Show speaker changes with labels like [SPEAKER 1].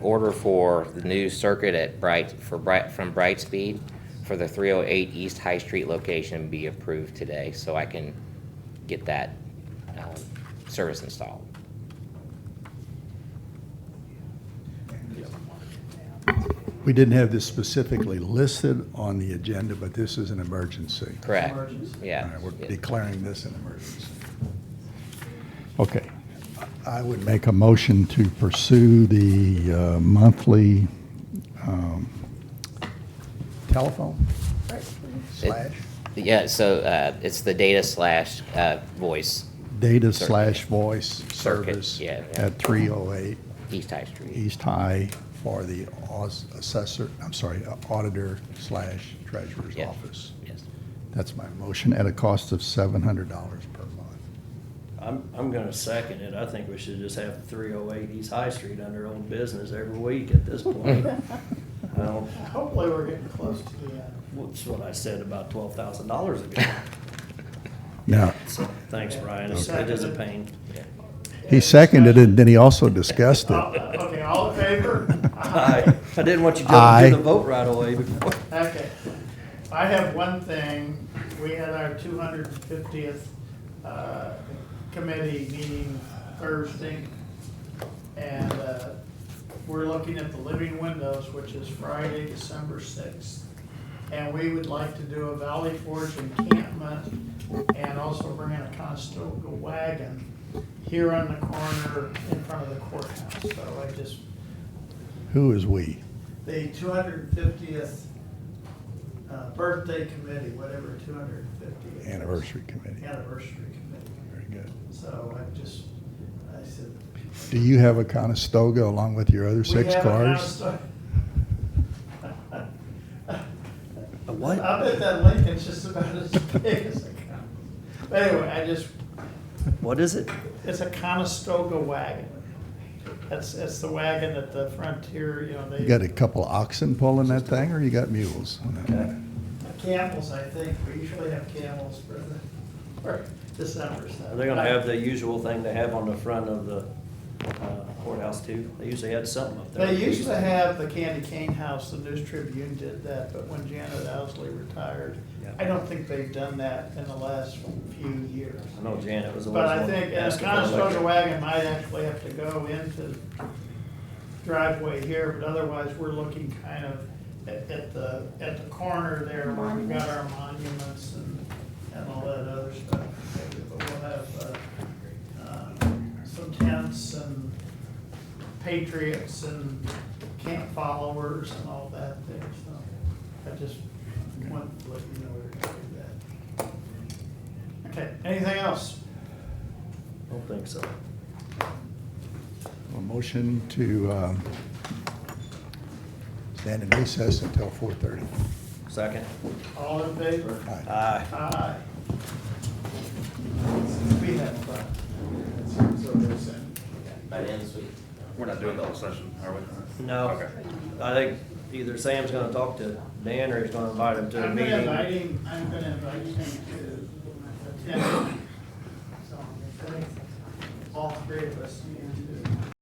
[SPEAKER 1] order for the new circuit at Bright, for Bright, from Brightspeed for the 308 East High Street location be approved today, so I can get that um, service installed.
[SPEAKER 2] We didn't have this specifically listed on the agenda, but this is an emergency.
[SPEAKER 1] Correct?
[SPEAKER 2] All
[SPEAKER 1] Yeah.
[SPEAKER 2] right, We're declaring this an emergency. Okay. I would make a motion to pursue the uh, monthly um, telephone slash
[SPEAKER 1] Yeah, so uh, it's the data slash uh, voice,
[SPEAKER 2] data slash voice
[SPEAKER 1] Circuit,
[SPEAKER 2] service
[SPEAKER 1] yeah, yeah.
[SPEAKER 2] at 308
[SPEAKER 1] East High Street.
[SPEAKER 2] East High for the aus- assessor, I'm sorry, auditor slash treasurer's
[SPEAKER 1] Yeah.
[SPEAKER 2] office.
[SPEAKER 1] Yes.
[SPEAKER 2] That's my motion, at a cost of $700 per month.
[SPEAKER 3] I'm, I'm gonna second it. I think we should just have three oh eight East High Street under old business every week at this point. I don't,
[SPEAKER 4] Hopefully, we're getting close to the, uh,
[SPEAKER 3] that's what I said about twelve thousand dollars ago.
[SPEAKER 2] Now,
[SPEAKER 3] So, thanks, Brian. It's- It is a pain.
[SPEAKER 2] he seconded it, then he also discussed
[SPEAKER 4] oh,
[SPEAKER 2] it.
[SPEAKER 4] okay, all in favor?
[SPEAKER 3] I, I didn't want you to
[SPEAKER 2] Aye.
[SPEAKER 3] do the vote right away before.
[SPEAKER 4] Okay. I have one thing. We had our two hundred and fiftieth, uh, committee meeting Thursday. And, uh, we're looking at the living windows, which is Friday, December sixth. And we would like to do a Valley Forge encampment and also bring in a Conestoga wagon here on the corner in front of the courthouse. So I just
[SPEAKER 2] Who is "we"?
[SPEAKER 4] the two hundred fiftieth uh, birthday committee, whatever two hundred fiftieth.
[SPEAKER 2] Anniversary committee.
[SPEAKER 4] Anniversary committee.
[SPEAKER 2] Very good.
[SPEAKER 4] So I just, I said.
[SPEAKER 2] Do you have a Conestoga along with your other
[SPEAKER 4] we
[SPEAKER 2] six
[SPEAKER 4] have a
[SPEAKER 2] cars?
[SPEAKER 4] Conestoga-
[SPEAKER 3] A Uh, What?
[SPEAKER 4] I bet that Lincoln's just about as big as a con. But anyway, I just,
[SPEAKER 3] What is it?
[SPEAKER 4] it's a Conestoga wagon. That's, that's the wagon at the frontier, you know, they.
[SPEAKER 2] You got a couple oxen pulling that thing, or you got mules?
[SPEAKER 4] Camels, I think, we usually have camels for the, for December, so.
[SPEAKER 3] Are they gonna have the usual thing they have on the front of the uh, courthouse too? They usually had something up there.
[SPEAKER 4] They used to have the Candy Cane House, the News Tribune did that, but when Janet Owsley retired,
[SPEAKER 3] Yeah.
[SPEAKER 4] I don't think they've done that in the last few years.
[SPEAKER 3] I know Janet was the one.
[SPEAKER 4] But I think uh, a Conestoga wagon might actually have to go into driveway here, but otherwise, we're looking kind of at, at the, at the corner there where we've got our monuments and, and all that other stuff. But we'll have, uh, uh, some tents and patriots and camp followers and all that there, so I just wanted to let you know we're gonna do that. Okay, anything else?
[SPEAKER 3] I don't think so.
[SPEAKER 2] A motion to um, stand in recess until 4:30.
[SPEAKER 3] Second?
[SPEAKER 4] All in favor?
[SPEAKER 2] Aye.
[SPEAKER 3] Aye.
[SPEAKER 4] Aye. We have fun. So there's that.
[SPEAKER 1] By the end of the week.
[SPEAKER 5] We're not doing the whole session, are we?
[SPEAKER 3] No,
[SPEAKER 5] Okay.
[SPEAKER 3] I think either Sam's gonna talk to Dan or he's gonna invite him to a
[SPEAKER 4] I'm gonna invite
[SPEAKER 3] meeting.
[SPEAKER 4] him, I'm gonna invite him to attend. So, I think All three of us, and